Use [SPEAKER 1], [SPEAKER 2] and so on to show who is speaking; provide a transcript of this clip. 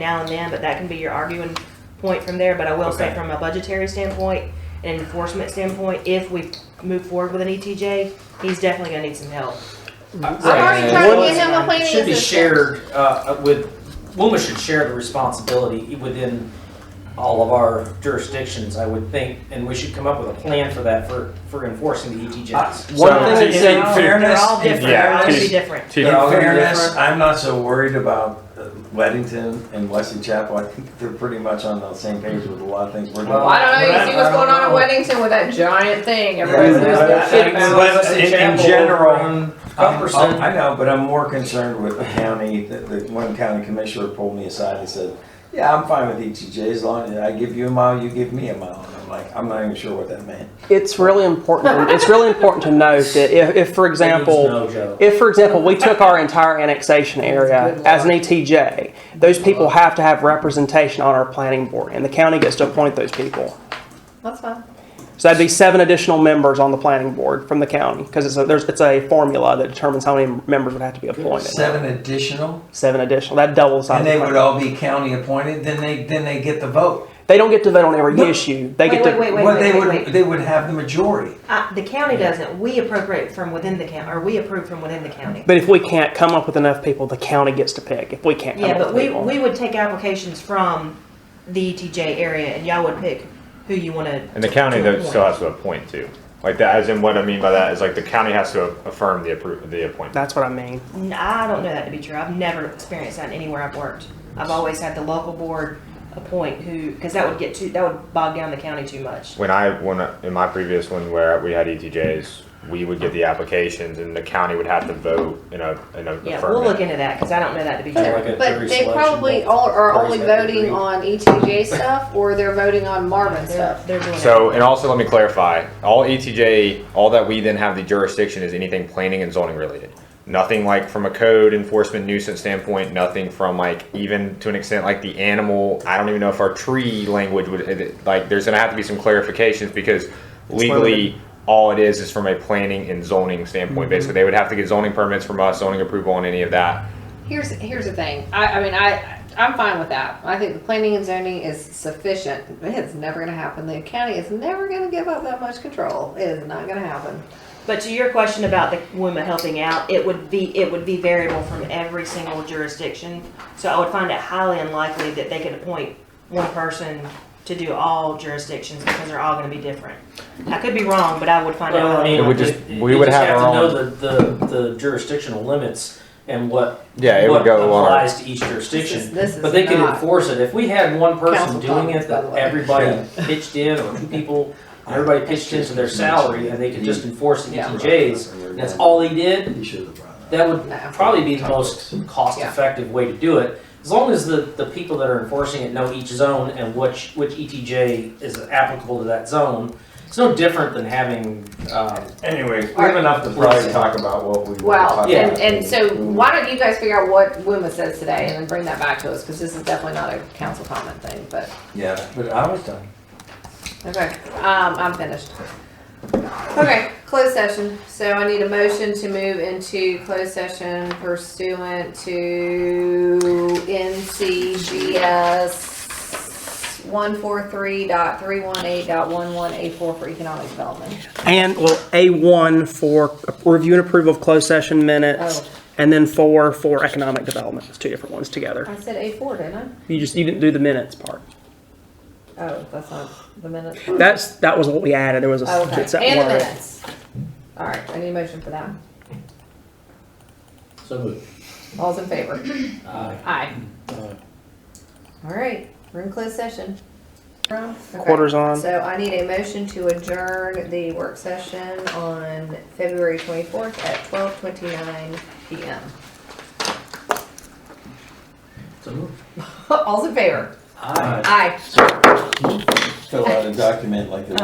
[SPEAKER 1] now and then, but that can be your arguing point from there. But I will say
[SPEAKER 2] Okay.
[SPEAKER 1] from a budgetary standpoint and enforcement standpoint, if we move forward with an ETJ, he's definitely gonna need some help.
[SPEAKER 3] I'm already
[SPEAKER 2] Right.
[SPEAKER 3] trying to
[SPEAKER 2] What-
[SPEAKER 3] get him a planning
[SPEAKER 4] It should be
[SPEAKER 3] assistant.
[SPEAKER 4] shared, uh, with, WUMA should share the responsibility within all of our jurisdictions, I would think, and we should come up with a plan for that, for, for enforcing the E ETJs.
[SPEAKER 2] One
[SPEAKER 1] So-
[SPEAKER 2] thing is in
[SPEAKER 1] They're all-
[SPEAKER 2] fairness,
[SPEAKER 1] They're all
[SPEAKER 2] in
[SPEAKER 1] different, they're all gonna be
[SPEAKER 2] fairness-
[SPEAKER 1] different.
[SPEAKER 2] in
[SPEAKER 5] They're all gonna be
[SPEAKER 2] fairness,
[SPEAKER 5] different.
[SPEAKER 2] I'm not so worried about uh, Weddington and Wesley Chapel. I think they're pretty much on the same page with a lot of things we're doing.
[SPEAKER 4] Well,
[SPEAKER 3] I don't know,
[SPEAKER 4] Well,
[SPEAKER 3] you see
[SPEAKER 4] I-
[SPEAKER 3] what's
[SPEAKER 4] I don't
[SPEAKER 3] going on in
[SPEAKER 4] know.
[SPEAKER 3] Weddington with that giant thing, everybody's
[SPEAKER 2] Yeah,
[SPEAKER 3] losing
[SPEAKER 2] but
[SPEAKER 3] their
[SPEAKER 2] I
[SPEAKER 3] shit
[SPEAKER 2] think-
[SPEAKER 3] about.
[SPEAKER 2] but
[SPEAKER 4] Wesley
[SPEAKER 2] in- in
[SPEAKER 4] Chapel,
[SPEAKER 2] general,
[SPEAKER 4] um,
[SPEAKER 2] um, um,
[SPEAKER 4] 10%.
[SPEAKER 2] I know, but I'm more concerned with the county, that, that one county commissioner pulled me aside and said, yeah, I'm fine with ETJ as long as I give you a mile, you give me a mile. And I'm like, I'm not even sure what that meant.
[SPEAKER 6] It's really important. It's really important to note that if, if for example,
[SPEAKER 4] No, Joe.
[SPEAKER 6] If, for example, we took our entire annexation area as an ETJ, those people have to have representation on our planning board, and the county gets to appoint those people.
[SPEAKER 3] That's fine.
[SPEAKER 6] So that'd be seven additional members on the planning board from the county, because it's a, there's, it's a formula that determines how many members would have to be appointed.
[SPEAKER 5] Seven additional,
[SPEAKER 6] Seven additional, that doubles. the size
[SPEAKER 5] and
[SPEAKER 6] of the
[SPEAKER 5] they
[SPEAKER 6] planning
[SPEAKER 5] would all be county appointed, then they, then they get the vote.
[SPEAKER 6] board. They don't get to vote on every
[SPEAKER 5] No.
[SPEAKER 6] issue. They
[SPEAKER 1] Wait,
[SPEAKER 6] get
[SPEAKER 1] wait, wait,
[SPEAKER 6] to,
[SPEAKER 1] wait,
[SPEAKER 5] Well, they
[SPEAKER 1] wait, wait,
[SPEAKER 5] would,
[SPEAKER 1] wait.
[SPEAKER 5] they would have the majority.
[SPEAKER 1] Uh, the county doesn't, we appropriate from within the county, or we approve from within the county.
[SPEAKER 6] but if we can't come up with enough people, the county gets to pick. If we can't come
[SPEAKER 1] Yeah,
[SPEAKER 6] up
[SPEAKER 1] but
[SPEAKER 6] with
[SPEAKER 1] we,
[SPEAKER 6] people.
[SPEAKER 1] we would take applications from the ETJ area and y'all would pick who you wanna.
[SPEAKER 7] And the county
[SPEAKER 1] to
[SPEAKER 7] though still
[SPEAKER 1] appoint.
[SPEAKER 7] has to appoint to, like that, as in what I mean by that is like the county has to affirm the appro, the appointment.
[SPEAKER 6] That's what I mean.
[SPEAKER 1] N- I don't know that to be true. I've never experienced that anywhere I've worked. I've always had the local board appoint who, because that would get too, that would bog down the county too much.
[SPEAKER 7] When I, when, I- in my previous one where we had ETJs, we would get the applications and the county would have to vote in a, in a
[SPEAKER 1] Yeah, we'll look
[SPEAKER 7] affirmative.
[SPEAKER 1] into that, because I don't know that to be
[SPEAKER 4] Kinda
[SPEAKER 1] true.
[SPEAKER 4] like a
[SPEAKER 3] But
[SPEAKER 4] jury
[SPEAKER 3] they
[SPEAKER 4] selection,
[SPEAKER 3] probably
[SPEAKER 4] but
[SPEAKER 3] all are
[SPEAKER 4] parties
[SPEAKER 3] only
[SPEAKER 4] have to
[SPEAKER 3] voting
[SPEAKER 4] agree.
[SPEAKER 3] on ETJ stuff, or they're voting on Marvin
[SPEAKER 1] They're,
[SPEAKER 3] stuff.
[SPEAKER 1] they're doing it.
[SPEAKER 7] So, and also let me clarify, all ETJ, all that we then have the jurisdiction is anything planning and zoning related. Nothing like from a code enforcement nuisance standpoint, nothing from like even to an extent like the animal, I don't even know if our tree language would, like, there's gonna have to be some clarifications because legally, all it is is from a planning and zoning standpoint. Basically, they would have to get zoning permits from us, zoning approval on any of that.
[SPEAKER 3] Here's, here's the thing, I, I mean, I, I'm fine with that. I think the planning and zoning is sufficient. It's never gonna happen. The county is never gonna give up that much control. It is not gonna happen.
[SPEAKER 1] But to your question about the women helping out, it would be, it would be variable from every single jurisdiction. So I would find it highly unlikely that they could appoint one person to do all jurisdictions because they're all gonna be different. I could be wrong, but I would find
[SPEAKER 4] Well, I
[SPEAKER 1] out.
[SPEAKER 4] mean,
[SPEAKER 7] It would just-
[SPEAKER 4] you-
[SPEAKER 7] we
[SPEAKER 4] you
[SPEAKER 7] would
[SPEAKER 4] just
[SPEAKER 7] have our
[SPEAKER 4] to know the, the, the jurisdictional limits and what
[SPEAKER 7] Yeah, it would
[SPEAKER 4] what
[SPEAKER 7] go on.
[SPEAKER 4] applies to each
[SPEAKER 3] This is,
[SPEAKER 4] jurisdiction.
[SPEAKER 3] this is
[SPEAKER 4] But they could
[SPEAKER 3] not-
[SPEAKER 4] enforce it if we had one person
[SPEAKER 3] Council
[SPEAKER 4] doing
[SPEAKER 3] comments,
[SPEAKER 4] it
[SPEAKER 3] by the
[SPEAKER 4] that
[SPEAKER 3] way.
[SPEAKER 4] everybody pitched in or two people, everybody pitched into their salary and they could just enforce the
[SPEAKER 3] Yeah.
[SPEAKER 4] ETJs. and That's all they did.
[SPEAKER 2] You should have brought that.
[SPEAKER 4] That would
[SPEAKER 3] No.
[SPEAKER 4] probably be the most cost-effective way to do it. As long as the, the people that are enforcing it know each zone and which, which ETJ is applicable to that zone. It's no different than having, um,
[SPEAKER 2] Anyway, we have enough to probably talk about what we. wanna
[SPEAKER 3] Well,
[SPEAKER 2] talk
[SPEAKER 3] and,
[SPEAKER 2] about.
[SPEAKER 3] and so why don't you guys figure out what WUMA says today and then bring that back to us, because this is definitely not a council comment thing, but,
[SPEAKER 2] Yeah, but I was done.
[SPEAKER 3] okay, um, I'm finished. Okay, closed session, so I need a motion to move into closed session pursuant to NCGS one four three dot three one eight dot one one eight four for economic development.
[SPEAKER 6] And, well, A1 for review and approval of closed session minutes,
[SPEAKER 3] Oh.
[SPEAKER 6] and then four for economic development, it's two different ones together.
[SPEAKER 3] I said A four, didn't I?
[SPEAKER 6] You just, you didn't do the minutes part.
[SPEAKER 3] Oh, that's not the minutes.
[SPEAKER 6] That's, that was what we added, there was a,
[SPEAKER 3] Okay,
[SPEAKER 6] it's that
[SPEAKER 3] and the
[SPEAKER 6] word.
[SPEAKER 3] minutes. All right, I need a motion for that.
[SPEAKER 4] so moved.
[SPEAKER 3] All's in favor?
[SPEAKER 4] Aye.
[SPEAKER 3] Aye.
[SPEAKER 4] Aye.
[SPEAKER 3] All right, we're in closed session. Okay.
[SPEAKER 6] Quarters on.
[SPEAKER 3] So I need a motion to adjourn the work session on February twenty-fourth at twelve twenty-nine PM.
[SPEAKER 4] So moved.
[SPEAKER 3] All's in favor?
[SPEAKER 4] Aye.
[SPEAKER 3] Aye.
[SPEAKER 2] Fill out a document like this.